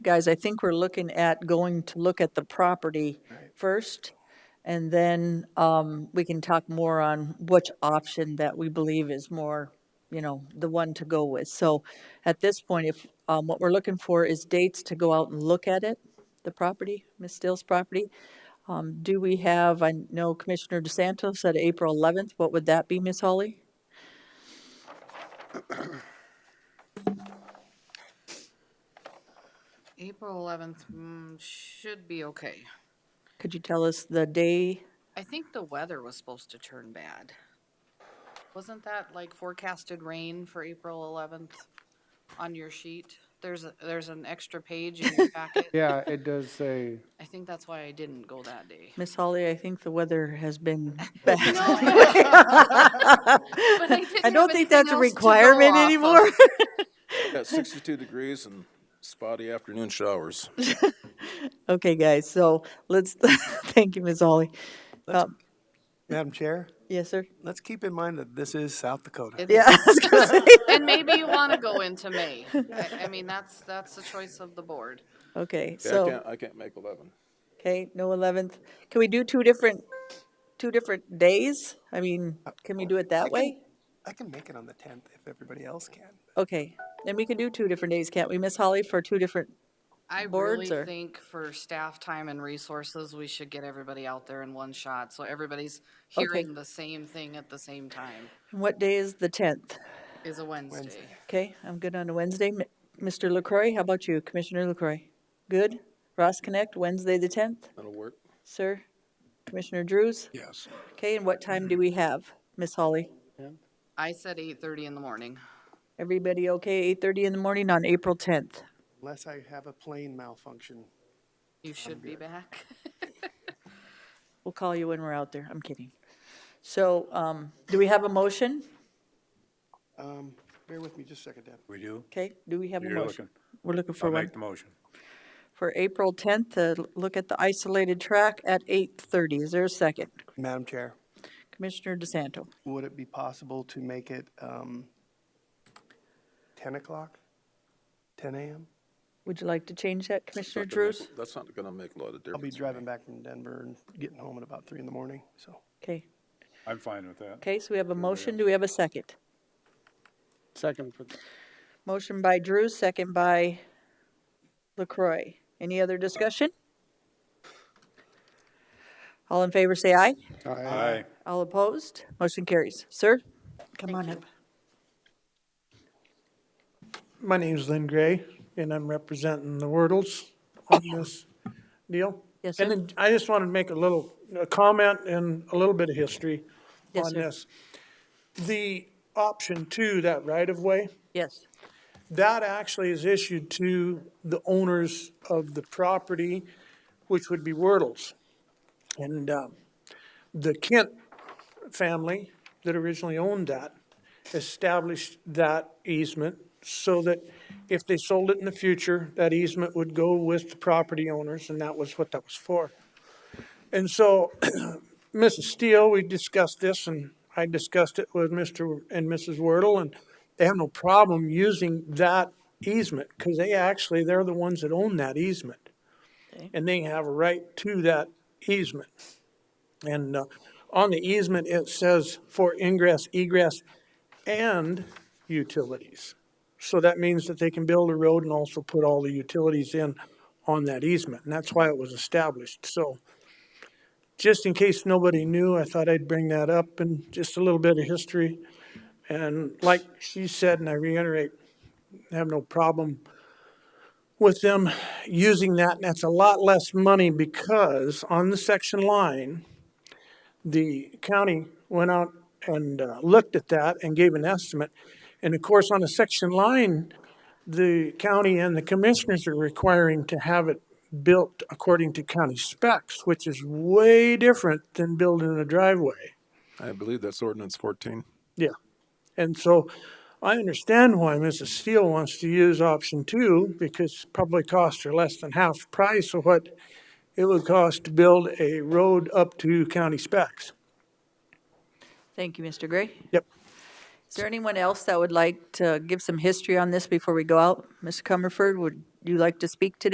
Guys, I think we're looking at going to look at the property first, and then um, we can talk more on which option that we believe is more, you know, the one to go with. So at this point, if, um, what we're looking for is dates to go out and look at it, the property, Ms. Steele's property. Um, Do we have, I know Commissioner DeSanto said April 11th, what would that be, Ms. Hawley? April 11th mm, should be okay. Could you tell us the day? I think the weather was supposed to turn bad. Wasn't that like forecasted rain for April 11th on your sheet? There's, a- there's an extra page in your packet. Yeah, it does say, I think that's why I didn't go that day. Miss Hawley, I think the weather has been bad. But I didn't have don't think that's a anything else to go requirement off of. anymore. Got 62 degrees and spotty afternoon showers. Okay, guys, so let's, thank you, Ms. Hawley. Let's- Um, Madam Chair, Yes, sir? let's keep in mind that this is South Dakota. It- Yeah. I was gonna say- And maybe you want to go into May. I, I mean, that's, that's the choice of the board. Okay, Yeah, I so, can't, I can't make 11. okay, no 11th. Can we do two different, two different days? I mean, can we do it I that can- way? I can make it on the 10th if everybody else can. Okay, then we can do two different days, can't we, Miss Hawley, for two different, I Boards really or- think for staff time and resources, we should get everybody out there in one shot, so everybody's hearing the same thing at the same time, and what day is the 10th? is a Wednesday. Okay, I'm good on a Wednesday. M- Mr. LaCroy, how about you, Commissioner LaCroy? Good? Ross Connect, Wednesday the 10th, That'll work. sir? Commissioner Drews? Yes. Okay, and what time Mm-hmm. do we have, Miss Hawley? I said eight-thirty in the morning. Everybody okay, 8:30 in the morning on April 10th? Unless I have a plane malfunction. You should be back. We'll call you when we're out there, I'm kidding. So, um, do we have a motion? Um, Bear with me just a second, Deb. We do? Okay, do we have a You're motion? looking. We're looking for I'll one, make the motion. for April 10th, to l- look at the isolated track at 8:30. Is there a second? Madam Chair, Commissioner DeSanto? would it be possible to make it um, 10 o'clock? 10 a.m.? Would you like to change that, It's Commissioner not gonna make- Drews? That's not gonna make a lot of difference. I'll be to me. driving back from Denver and getting home at about 3 in the morning, so. Okay, I'm fine with that. okay, so we have a motion, do we have a second? second, for- Motion by Drews, second by LaCroy. Any other discussion? All in favor, say aye. Aye. All opposed? Motion carries. Sir? Come on up. My name's Lynn Gray, and I'm representing the Wordles on this deal. Yes, And sir. then I just wanted to make a little, a comment and a little bit of history Yes, on sir. this. The option two, that right-of-way, Yes. that actually is issued to the owners of the property, which would be Wordles. And um, the Kent family that originally owned that established that easement so that if they sold it in the future, that easement would go with the property owners, and that was what that was for. And so Mrs. Steele, we discussed this, and I discussed it with Mr. and Mrs. Wordle, and they have no problem using that easement, because they actually, they're the ones that own that easement. And they have a right to that easement. And uh, on the easement, it says for ingress, egress, and utilities. So that means that they can build a road and also put all the utilities in on that easement, and that's why it was established. So just in case nobody knew, I thought I'd bring that up and just a little bit of history. And like she said, and I reiterate, I have no problem with them using that, and that's a lot less money because on the section line, the county went out and uh, looked at that and gave an estimate. And of course, on a section line, the county and the commissioners are requiring to have it built according to county specs, which is way different than building a driveway. I believe that's ordinance 14. Yeah. And so I understand why Mrs. Steele wants to use option two because probably costs are less than half price of what it would cost to build a road up to county specs. Thank you, Mr. Gray. Yep. Is there anyone else that would like to give some history on this before we go out? Mr. Comerford, would you like to speak today?